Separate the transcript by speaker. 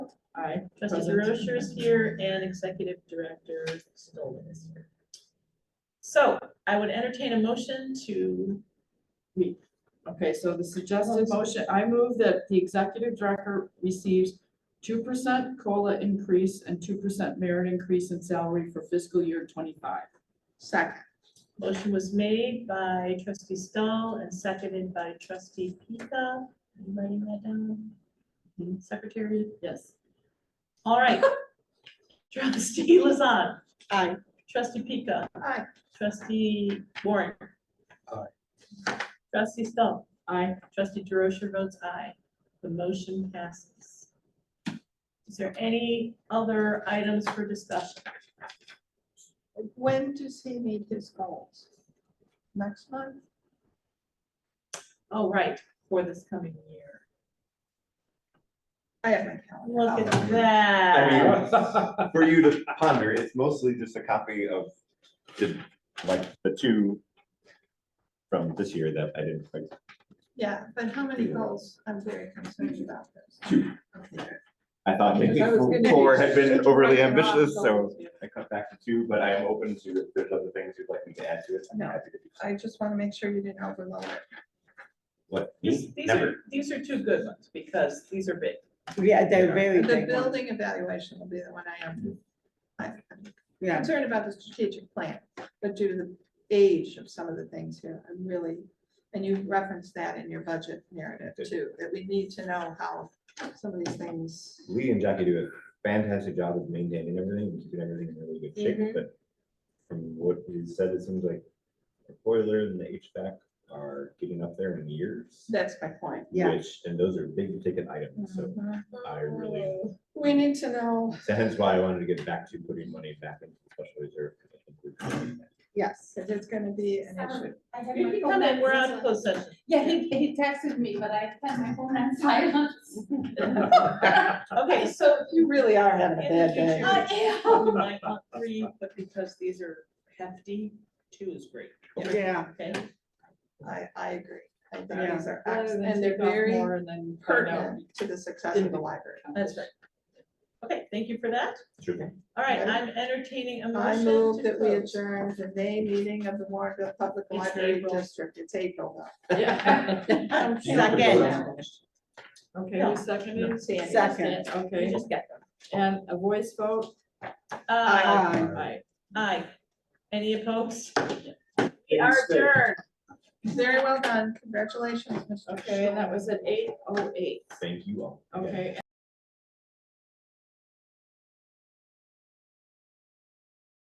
Speaker 1: Aye. Trustee Derosha is here and Executive Director Stoll is here. So I would entertain a motion to,
Speaker 2: Okay, so the suggested motion, I move that the executive director receives two percent COLA increase and two percent merit increase in salary for fiscal year twenty-five.
Speaker 3: Second.
Speaker 1: motion was made by trustee Stoll and seconded by trustee Pika. Are you Writing that down, secretary.
Speaker 2: Yes.
Speaker 1: All right. Trustee Lazan,
Speaker 3: Aye.
Speaker 1: trustee Pika,
Speaker 3: Aye.
Speaker 1: trustee Warren.
Speaker 4: Aye.
Speaker 1: Trustee Stoll.
Speaker 2: I,
Speaker 1: Trustee DeRosa votes aye. The motion passes. Is there any other items for discussion?
Speaker 3: When does he meet his goals? Next month?
Speaker 1: Oh, right, for this coming year.
Speaker 3: I have my calendar.
Speaker 1: Look at
Speaker 5: Um, I
Speaker 1: that.
Speaker 5: mean, for you to ponder, it's mostly just a copy of the, like, the two from this year that I didn't quite.
Speaker 3: Yeah, but how many goals? I'm very concerned about this.
Speaker 5: I thought maybe
Speaker 3: Because I was gonna-
Speaker 5: four had been overly
Speaker 3: Right, they're all
Speaker 5: ambitious, so
Speaker 3: goals, yeah.
Speaker 5: I cut back to two, but I am open to if there's other things you'd like me to add to it. I'm
Speaker 3: No.
Speaker 5: happy to do so.
Speaker 3: I just want to make sure you didn't overload it.
Speaker 5: What?
Speaker 1: These these
Speaker 5: Never.
Speaker 1: are, these are two good ones because these are big.
Speaker 6: Yeah, they're very
Speaker 3: The
Speaker 6: big ones.
Speaker 3: building evaluation will be the one I am. I'm
Speaker 6: Yeah,
Speaker 3: concerned about the strategic plan, but due to the age of some of the things here, I'm really, and you referenced that in your budget narrative too, that we need to know how some of these things.
Speaker 5: Lee and Jackie do a fantastic job of maintaining everything, and keeping everything in really good shape,
Speaker 3: Mhm.
Speaker 5: but from what you said, it seems like the boiler and the HVAC are getting up there in years.
Speaker 3: That's my point.
Speaker 6: yeah,
Speaker 5: Which, and those are big ticket items, so
Speaker 3: Mhm.
Speaker 5: I really,
Speaker 3: We need to know,
Speaker 5: so hence why I wanted to get back to putting money back into the special reserve. 'cause I think we're doing that.
Speaker 3: yes, if it's gonna be an issue.
Speaker 7: Um, I have
Speaker 1: You
Speaker 7: my
Speaker 1: can
Speaker 7: phone
Speaker 1: come in,
Speaker 7: on
Speaker 1: we're on
Speaker 7: silent.
Speaker 1: closed session.
Speaker 7: Yeah, he, he texted me, but I had my phone on silent.
Speaker 1: Okay, so
Speaker 3: So you really are
Speaker 1: in
Speaker 3: having a bad day.
Speaker 1: the
Speaker 7: I
Speaker 1: future,
Speaker 7: am.
Speaker 1: we might want three, but because these are hefty, two is great.
Speaker 6: yeah.
Speaker 1: Okay,
Speaker 3: I, I agree. I think
Speaker 6: Yeah.
Speaker 3: these are,
Speaker 2: Rather than
Speaker 3: excellent, and they're
Speaker 2: take off
Speaker 3: very
Speaker 2: more and then find out.
Speaker 3: pertinent to the success of the library.
Speaker 1: that's right. Okay, thank you for that.
Speaker 5: Sure thing.
Speaker 1: All right, I'm entertaining a motion.
Speaker 3: I move
Speaker 1: to
Speaker 3: that we
Speaker 1: close.
Speaker 3: adjourn the May meeting of the Warrenville Public
Speaker 1: It's
Speaker 3: Library
Speaker 1: April.
Speaker 3: District. It's April
Speaker 2: Yeah.
Speaker 3: though.
Speaker 6: Second.
Speaker 2: Okay, who seconded?
Speaker 6: Second.
Speaker 1: We
Speaker 2: Okay,
Speaker 1: just got them.
Speaker 2: and a voice vote?
Speaker 1: Aye,
Speaker 6: Aye.
Speaker 2: Aye.
Speaker 1: Uh, aye. Any opposed? We are
Speaker 4: Stay.
Speaker 1: adjourned.
Speaker 3: Very well done. Congratulations, Mr.
Speaker 2: Okay, and that was at eight oh eight.
Speaker 5: Thank you all.
Speaker 2: Okay,